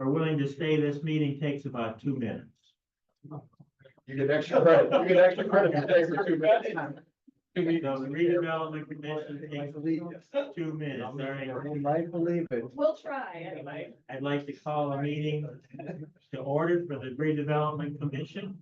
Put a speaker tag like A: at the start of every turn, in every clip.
A: are willing to stay, this meeting takes about two minutes.
B: You get extra credit, you get extra credit for staying for two minutes. Two
A: The
B: meetings.
A: redevelopment commission takes two minutes, all right.
C: might believe it.
D: We'll try anyway.
A: I'd like to call a meeting to order for the redevelopment commission.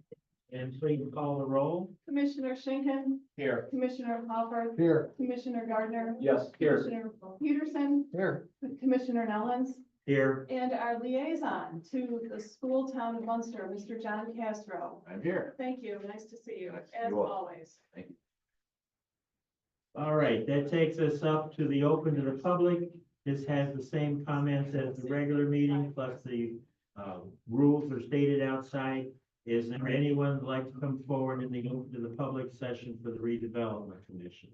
A: And please call the roll.
D: Commissioner Schinkin,
B: Here.
D: Commissioner Hopper,
C: Here,
D: Commissioner Gardner.
B: Yes, here.
D: Commissioner Peterson,
C: here.
D: Commissioner Nellens,
A: Here,
D: and our liaison to the school town of Munster, Mr. John Castro.
B: I'm here.
D: Thank you. Nice to see you,
B: Nice to see
D: as
B: you all.
D: always.
A: all right, that takes us up to the open to the public. This has the same comments as the regular meeting, plus the uh, rules are stated outside. Is there anyone who'd like to come forward in the open to the public session for the redevelopment commission?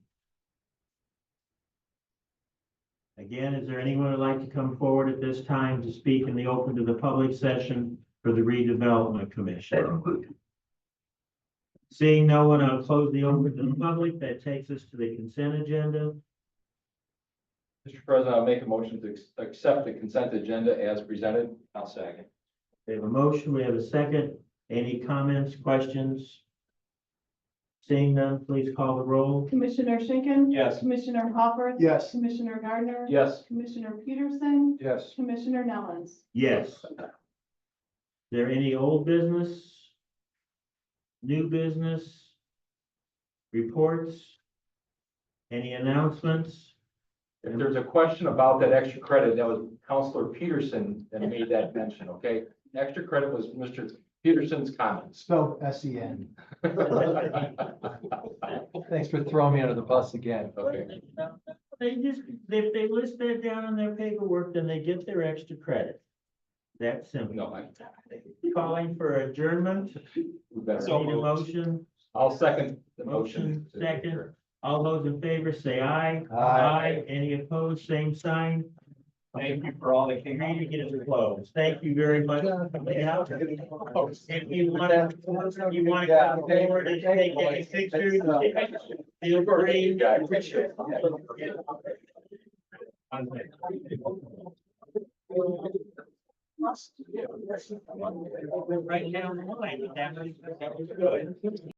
A: Again, is there anyone who'd like to come forward at this time to speak in the open to the public session for the redevelopment commission? Seeing no one, I'll close the open to the public. That takes us to the consent agenda.
B: Mr. President, I'll make a motion to ex- accept the consent agenda as presented. I'll second.
A: We have a motion, we have a second. Any comments, questions? Seeing none, please call the roll.
D: Commissioner Schinkin.
B: Yes.
D: Commissioner Hopper.
C: Yes.
D: Commissioner Gardner.
B: Yes.
D: Commissioner Peterson,
B: Yes.
D: Commissioner Nellens.
A: Yes. Is there any old business? New business? Reports? Any announcements?
B: If there's a question about that extra credit, that was Counselor Peterson that made that mention, okay? Extra credit was Mr. Peterson's comments.
C: Spelled S E N.
B: Okay.
C: Thanks for throwing me under the bus again.
A: They just, if they list that down on their paperwork, then they get their extra credit. That's simple.
B: No, I.
A: Calling for adjournment,
B: we better-
A: need a motion?
B: I'll second the motion.
A: Motion, second. All those in favor say aye.
C: Aye.
A: Any opposed, same sign.
E: Thank you for all the.
A: Meeting is closed. Thank you very much. for coming out. If you want, you want to come forward and take any pictures,
C: uh,
A: feel free.
B: Yeah, I appreciate it.
A: Right now, I think that was, that was good.